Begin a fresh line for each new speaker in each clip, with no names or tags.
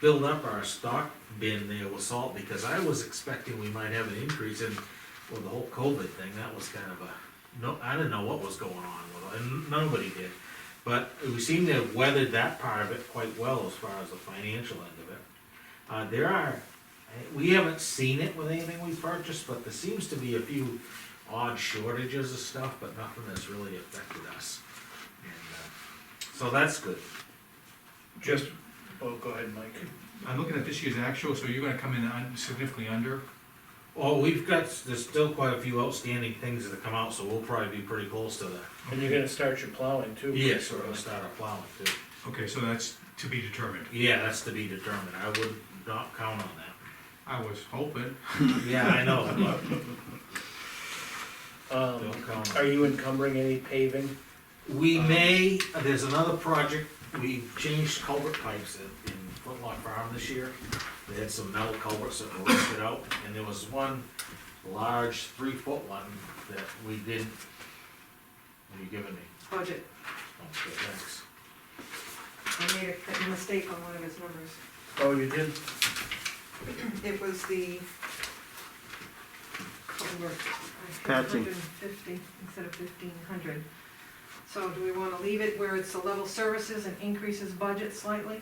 build up our stock bin there with salt, because I was expecting we might have an increase in, well, the whole COVID thing, that was kind of a, no, I didn't know what was going on with it, and nobody did. But we seem to have weathered that part of it quite well as far as the financial end of it. Uh, there are, I- we haven't seen it with anything we purchased, but there seems to be a few odd shortages of stuff, but nothing that's really affected us. And, uh, So that's good.
Just, oh, go ahead, Mike.
I'm looking at this year's actual, so you're gonna come in un- significantly under.
Well, we've got, there's still quite a few outstanding things that come out, so we'll probably be pretty close to the,
And you're gonna start your plowing too.
yes, we're gonna start our plowing too.
Okay, so that's to be determined.
Yeah, that's to be determined, I would not count on that.
I was hoping.
Yeah, I know, but
Um,
don't count on it.
are you encumbering any paving?
We may, there's another project, we changed culvert pipes in, in Footlock Farm this year. They had some metal culverts that were rusted out, and there was one large three-foot one that we didn't. What are you giving me?
budget.
Okay, thanks.
I made a mistake on one of his numbers.
Oh, you did?
It was the culvert.
Patching.
Hundred and fifty instead of fifteen hundred. So do we wanna leave it where it's the level services and increases budget slightly?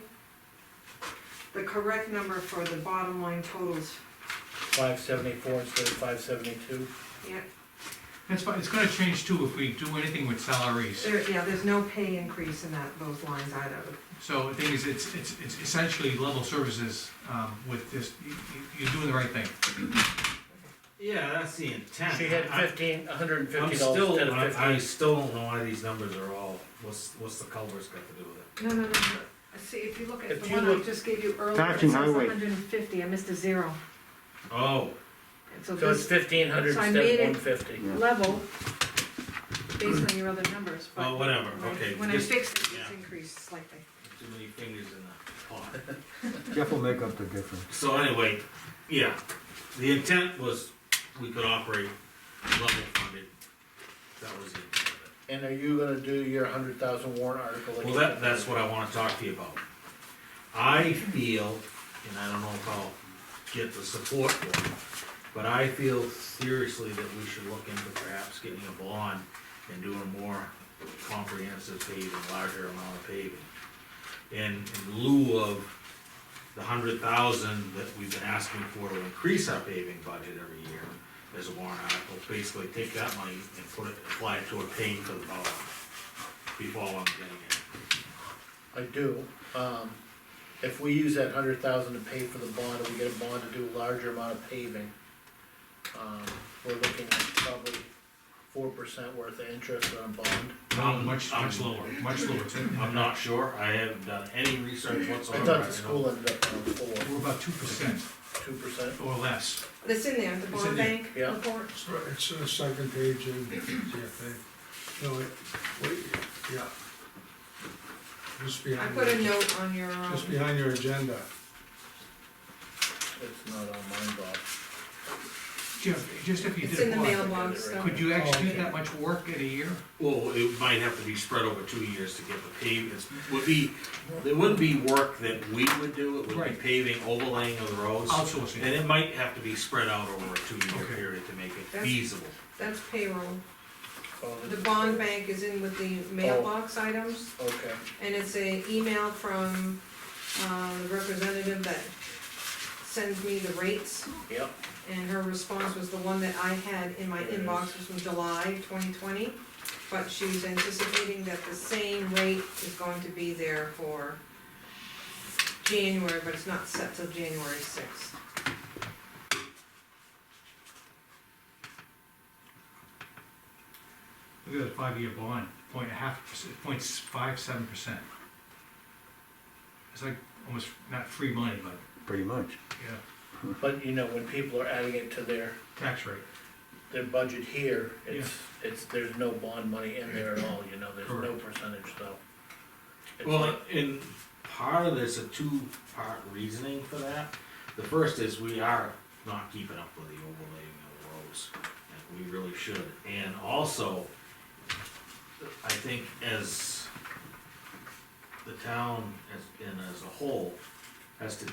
The correct number for the bottom line totals,
Five seventy-four instead of five seventy-two?
yeah,
That's fine, it's gonna change too if we do anything with salaries.
there, yeah, there's no pay increase in that, those lines either.
So the thing is, it's, it's, it's essentially level services, um, with this, you, you- you're doing the right thing.
Yeah, that's the intent.
She had
I-
fifteen, a hundred and
I'm
fifty dollars
still,
instead of
I, I
fifteen.
still don't know why these numbers are all, what's, what's the culvert's got to do with it?
No, no, no, no, see, if you look at
If
the
you
one I
look-
just gave you earlier, it
Patching
says
highway.
hundred and fifty, I missed a zero.
Oh,
And
So it's
this-
fifteen hundred
So I
instead
made
of
it-
one fifty.
Yeah.
level based on your other numbers,
well,
but
whatever,
when
okay.
I- when I
just
fixed it, it's
yeah.
increased slightly.
Too many fingers in the pot.
Jeff will make up the difference.
So anyway, yeah, the intent was we could operate level funded. That was the intent of
And are you gonna do your hundred thousand warrant article?
it.
like
Well,
you
that,
did?
that's what I wanna talk to you about. I feel, and I don't know if I'll get the support for it, but I feel seriously that we should look into perhaps getting a bond and doing more comprehensive paving, larger amount of paving. In in lieu of the hundred thousand that we've been asking for to increase our paving budget every year as a warrant article, basically take that money and put it, apply it toward paying for the bond before I'm getting it.
I do. Um, if we use that hundred thousand to pay for the bond, and we get a bond to do a larger amount of paving, um, we're looking at probably four percent worth of interest on a bond.
Um,
Much,
um,
much lower, much lower. It's-
I'm not sure, I haven't done any research
I
whatsoever.
thought the
don't-
school ended up on
We're
four,
about two percent
two percent.
or less.
That's in there, the
It's
bond
in there,
bank
yeah.
report.
It's right, It's the second page in GFA. No, wait, wait, yeah. Just
I
behind,
put a
your-
note on your, um,
just behind your agenda.
It's not on mine, Bob.
Jeff, just if you
it's
did
in
a
the
quad,
mailbox, so.
could you
Oh,
actually do
okay.
that much work in a year?
Well, it might have to be spread over two years to get the pavements, would be, it wouldn't be work that we would do, it would be
Right.
paving, overlaying of the roads.
Outsourcing.
And it might have to be spread out over a two-year
Okay.
period to make it
That's-
feasible.
That's payroll.
Oh,
The bond bank is in with the mailbox items,
Okay,
and it's a email from, uh, the representative that sends me the rates,
yep,
and her response was the one that I had in my inbox, was from July twenty twenty. But she's anticipating that the same rate is going to be there for January, but it's not set till January sixth.
Look at that five-year bond, point a half, perc- point s- five, seven percent. It's like almost not free money, but,
Pretty much.
yeah,
but you know, when people are adding it to their,
tax rate,
their budget here, it's, it's, there's no bond money in there at all, you know, there's no
Correct.
percentage, so. It's
Well,
like-
and part of this, a two-part reasoning for that. The first is we are not keeping up with the overlaying of the roads, and we really should. And also, I think as the town as- and as a whole has to